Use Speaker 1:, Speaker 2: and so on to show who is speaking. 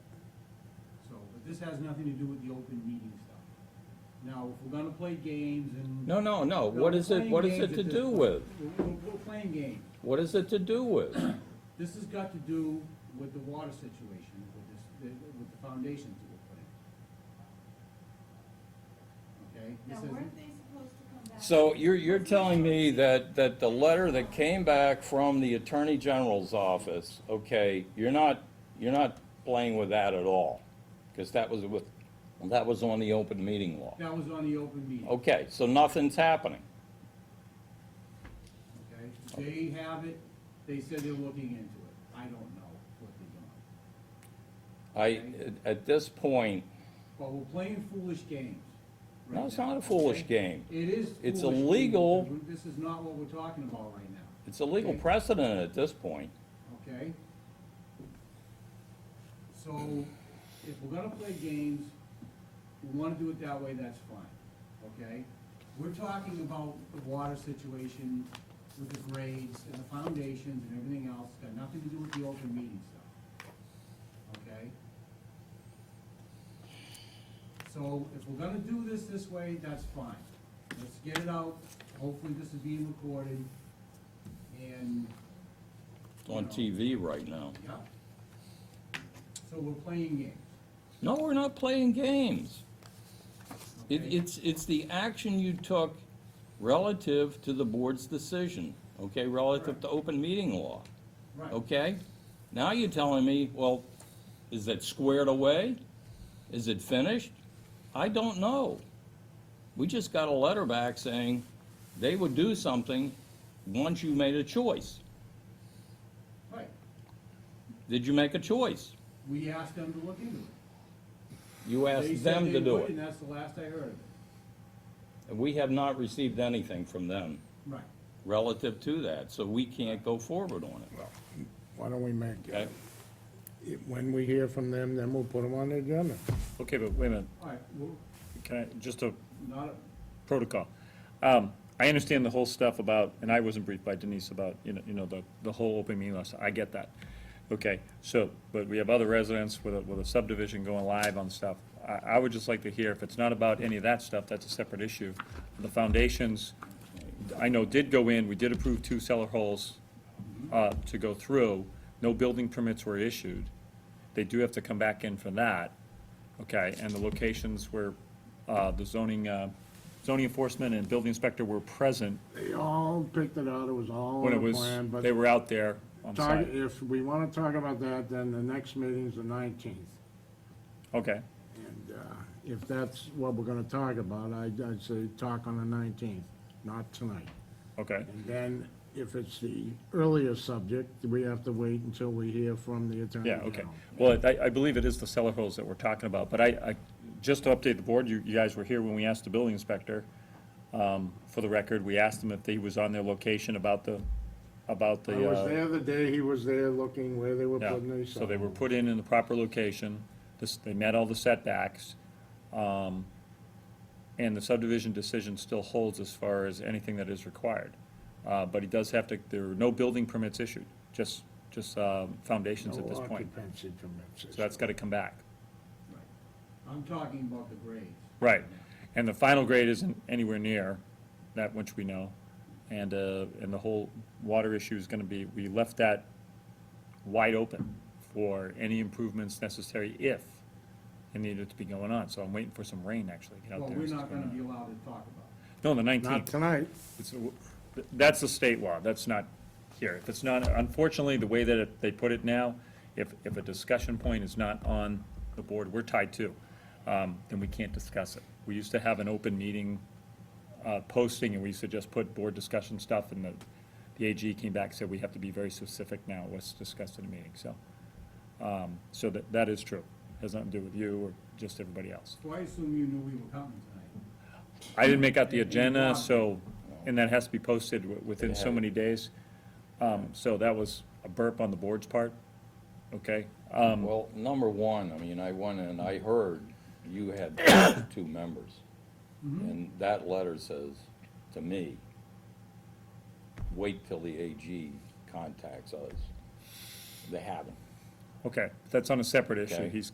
Speaker 1: this has nothing to do with the open meeting stuff. Now, if we're gonna play games and.
Speaker 2: No, no, no, what
Speaker 1: We're
Speaker 2: is it,
Speaker 1: playing
Speaker 2: what is
Speaker 1: games
Speaker 2: it to
Speaker 1: at this
Speaker 2: do
Speaker 1: point.
Speaker 2: with?
Speaker 1: We're, we're- we're playing games.
Speaker 2: What is it to do with?
Speaker 1: This has got to do with the water situation, with this, the- with the foundations that we're putting. Okay?
Speaker 3: Now,
Speaker 1: This
Speaker 3: weren't
Speaker 1: isn't,
Speaker 3: they supposed to come back?
Speaker 2: So you're, you're telling me that, that the letter that came back from the Attorney General's office, okay, you're not, you're not playing with that at all? Because that was with, that was on the open meeting law.
Speaker 1: that was on the open meeting,
Speaker 2: Okay, so nothing's happening.
Speaker 1: okay? They have it, they said they're looking into it. I don't know what they're doing.
Speaker 2: I, at this point,
Speaker 1: But we're playing foolish games. right
Speaker 2: no, it's
Speaker 1: now,
Speaker 2: not a foolish
Speaker 1: okay?
Speaker 2: game.
Speaker 1: It is foolish.
Speaker 2: It's
Speaker 1: games,
Speaker 2: illegal.
Speaker 1: because This is not what we're talking about right now.
Speaker 2: It's a legal precedent at this point.
Speaker 1: okay? So, if we're gonna play games, we wanna do it that way, that's fine, okay? We're talking about the water situation with the grades and the foundations and everything else, got nothing to do with the open meeting stuff, okay? So, if we're gonna do this this way, that's fine. Let's get it out, hopefully this is being recorded, and
Speaker 2: It's on TV right now.
Speaker 1: yeah. So we're playing games.
Speaker 2: No, we're not playing games. It,
Speaker 1: okay?
Speaker 2: it's, it's the action you took relative to the board's decision, okay, relative to open meeting law,
Speaker 1: Right.
Speaker 2: okay? Now you're telling me, well, is it squared away? Is it finished? I don't know. We just got a letter back saying they would do something once you made a choice.
Speaker 1: Right.
Speaker 2: Did you make a choice?
Speaker 1: We asked them to look into it.
Speaker 2: You
Speaker 1: They
Speaker 2: asked
Speaker 1: said
Speaker 2: them
Speaker 1: they
Speaker 2: to do
Speaker 1: would,
Speaker 2: it.
Speaker 1: And that's the last I heard of it.
Speaker 2: And we have not received anything from them
Speaker 1: Right.
Speaker 2: relative to that, so we can't go forward on it,
Speaker 4: Why don't we make,
Speaker 2: okay?
Speaker 4: it when we hear from them, then we'll put them on the agenda.
Speaker 5: Okay, but wait a minute,
Speaker 1: All right, well,
Speaker 5: can I, just a
Speaker 1: not,
Speaker 5: protocol. Um, I understand the whole stuff about, and I wasn't briefed by Denise about, you know, you know, the, the whole open meeting law, so I get that. Okay, so, but we have other residents with a, with a subdivision going live on stuff. I, I would just like to hear, if it's not about any of that stuff, that's a separate issue. The foundations, I know did go in, we did approve two cellar holes, uh, to go through. No building permits were issued. They do have to come back in for that, okay? And the locations where, uh, the zoning, uh, zoning enforcement and building inspector were present
Speaker 4: They all picked it out, it was all
Speaker 5: when it
Speaker 4: on the
Speaker 5: was,
Speaker 4: plan, but
Speaker 5: they were out there on
Speaker 4: talk-
Speaker 5: site.
Speaker 4: if we want to talk about that, then the next meeting's the nineteenth.
Speaker 5: Okay,
Speaker 4: And uh, if that's what we're going to talk about, I'd, I'd say talk on the nineteenth, not tonight.
Speaker 5: okay,
Speaker 4: And then if it's the earlier subject, we have to wait until we hear from the Attorney
Speaker 5: yeah,
Speaker 4: General.
Speaker 5: okay. Well, I, I believe it is the cellar holes that we're talking about, but I, I, just to update the board, you, you guys were here when we asked the building inspector, um, for the record, we asked him if he was on their location about the, about the,
Speaker 4: I
Speaker 5: uh.
Speaker 4: was there the day he was there looking where they were
Speaker 5: Yeah,
Speaker 4: putting these.
Speaker 5: so they were put in in the proper location, this, they met all the setbacks. um, And the subdivision decision still holds as far as anything that is required. Uh, but he does have to, there are no building permits issued, just, just, um, foundations at
Speaker 4: No
Speaker 5: this point.
Speaker 4: occupancy permits.
Speaker 5: So that's gotta come back.
Speaker 1: right. I'm talking about the grades.
Speaker 5: Right, and the final grade isn't anywhere near that which we know. And, uh, and the whole water issue is gonna be, we left that wide open for any improvements necessary if it needed to be going on. So I'm waiting for some rain actually to get out
Speaker 1: Well,
Speaker 5: there.
Speaker 1: we're
Speaker 5: It's
Speaker 1: not gonna
Speaker 5: gonna-
Speaker 1: be allowed to talk about
Speaker 5: No, the
Speaker 4: Not
Speaker 5: nineteenth.
Speaker 4: tonight.
Speaker 5: That's the state law, that's not here. If it's not, unfortunately, the way that it- they put it now, if, if a discussion point is not on the board, we're tied to, um, then we can't discuss it. We used to have an open meeting uh, posting, and we used to just put board discussion stuff, and the, the AG came back, and said we have to be very specific now, what's discussed in a meeting, so. um, So that, that is true, has nothing to do with you or just everybody else.
Speaker 1: it. So I assume you knew we were coming tonight.
Speaker 5: I didn't make out the agenda, so, and that has to be posted wi- within so many days. Um, so that was a burp on the board's part, okay? Um,
Speaker 2: Well, number one, I mean, I went and I heard you had two members. And that letter says to me, wait till the AG contacts us. They haven't.
Speaker 5: okay, that's on a separate issue,
Speaker 2: Okay.
Speaker 5: he's